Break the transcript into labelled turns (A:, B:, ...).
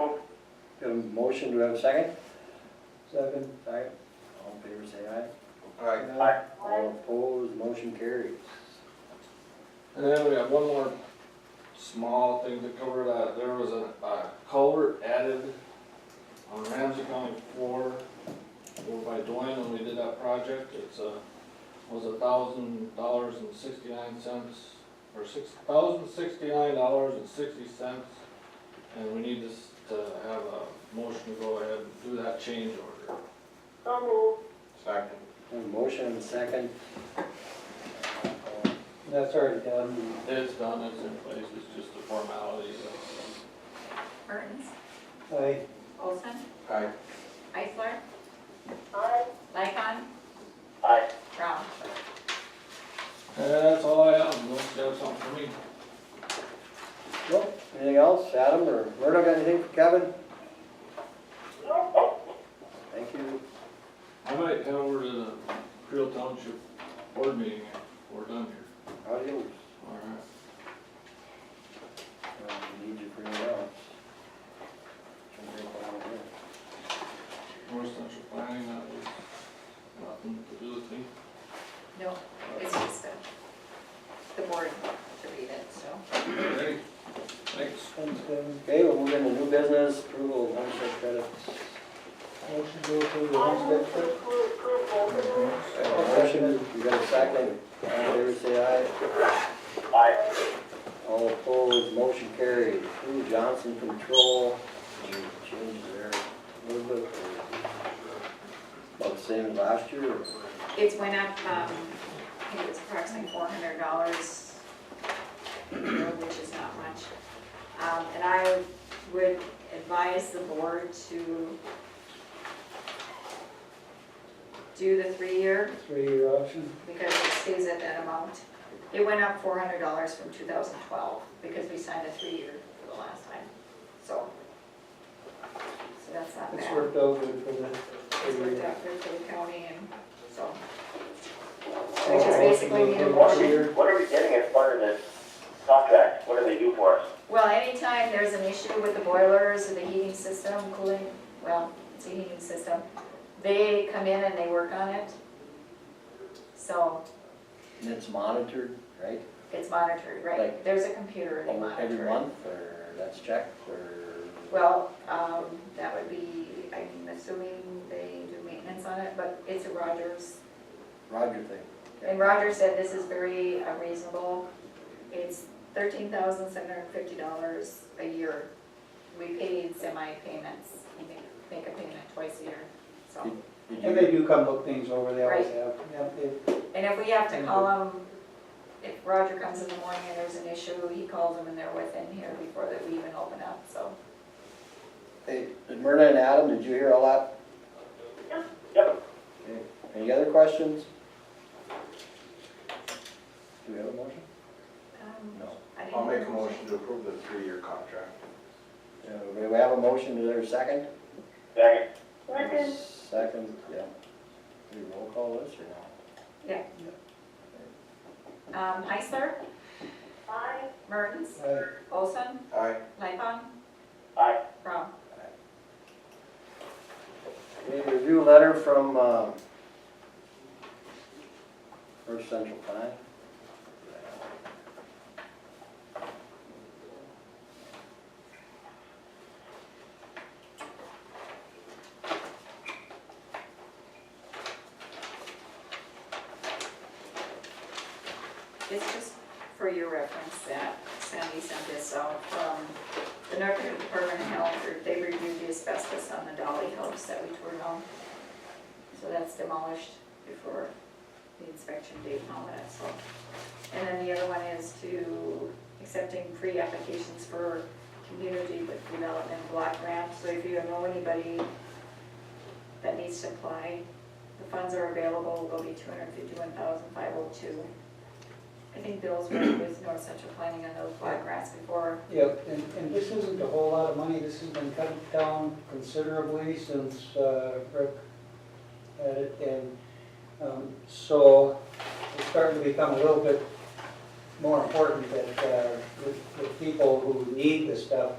A: Have a motion, do we have a second? Second. Second, all in favor, say aye.
B: Alright,
A: All opposed, motion carries.
B: and then we have one more small thing to cover, uh, there was a, a culvert added on Ramsey County four, over by Dwayne when we did that project, it's uh was a thousand dollars and sixty-nine cents, or six, thousand sixty-nine dollars and sixty cents, and we need this to have a motion to go ahead and do that change order.
C: So moved.
B: Second.
A: Have a motion and a second.
D: That's already done.
B: It's done, it's in place, it's just a formality, so.
E: Mertens,
D: I,
E: Olson,
B: Aye.
E: Isler,
C: Aye.
E: Lycon,
C: Aye.
E: Round.
B: Uh, That's all I have, unless you have something for me.
A: Nope, anything else, Adam or Murdo, got anything for Kevin? Thank you.
B: I might head over to the Creel Township er Board meeting if we're done here.
A: Adios.
B: All right.
A: Um, we Need you for anything else. Shouldn't take long here.
B: North Central Planning, that was nothing to do with me.
E: No, it's just uh, the board to read it, so.
B: Alright, thanks.
D: one's done.
A: Okay, we'll move into new business, approval of homestead credits.
D: Motion to approve the
C: I move
D: homestead
C: to
D: credit.
C: approve both of them.
A: Motion, you got a second, all in favor, say aye. Aye. All opposed, motion carried. Lou Johnson Control, change there a little bit. About the same as last year, or
E: It's went up, um, I think it was approximately four hundred dollars, which is not much. Um, and I would advise the board to do the three-year
D: Three-year option.
E: because it stays at that amount. It went up four hundred dollars from two thousand twelve, because we signed a three-year for the last time, so. So that's not bad.
D: It's worked out good for the
E: It's worked
D: three-year.
E: out good for the county and so.
D: All
E: We just
D: motion
E: basically
D: to
E: need a
D: approve
E: motion.
D: three-year.
F: What are we getting as part of this contract? What do they do for us?
E: Well, anytime there's an issue with the boilers or the heating system, cooling, well, it's a heating system, they come in and they work on it. So
A: and it's monitored, right?
E: it's monitored, right?
A: Like-
E: there's a computer and they monitor it.
A: Every month, or that's checked, or?
E: Well, um, that would be, I'm assuming they do maintenance on it, but it's a Rogers.
A: Roger thing.
E: And Roger said this is very uh, reasonable. It's thirteen thousand seven hundred fifty dollars a year. We pay in semi-payments, you make, make a payment twice a year, so.
A: Did
D: And they
A: you,
D: do come look things over, they always
E: Right.
D: have. Yep, they-
E: And if we have to call them, if Roger comes in the morning and there's an issue, he calls them and they're within here before that we even open up, so.
A: hey, Myrna and Adam, did you hear all that?
F: Yep.
A: Okay. Any other questions? Do we have a motion?
E: um,
A: No.
E: I didn't-
G: I'll make a motion to approve the three-year contract.
A: Uh, We have a motion, is there a second?
F: Second.
C: Second.
A: Second, yeah. Do we roll call this or no?
E: Um, Heisler,
C: Aye.
E: Mertens,
D: I-
E: Olson,
G: Aye.
E: Lightfon,
F: Aye.
E: Rob.
A: Okay, review letter from, um, First Central Pine.
E: It's just for your reference that Sandy sent this out from the North Dakota Department of Health, or they reviewed the asbestos on the Dolly House that we tore down. So that's demolished before the inspection date and all that, so. And then the other one is to accepting pre-applications for community with development block grant. So if you know anybody that needs to apply, the funds are available, will be two hundred fifty-one thousand five oh two. I think Bill's worked with North Central Planning on those black grass before.
D: Yep, and, and this isn't a whole lot of money, this has been cut down considerably since uh, Rick had it, and um, so it's starting to become a little bit more important that, uh, that that people who need the stuff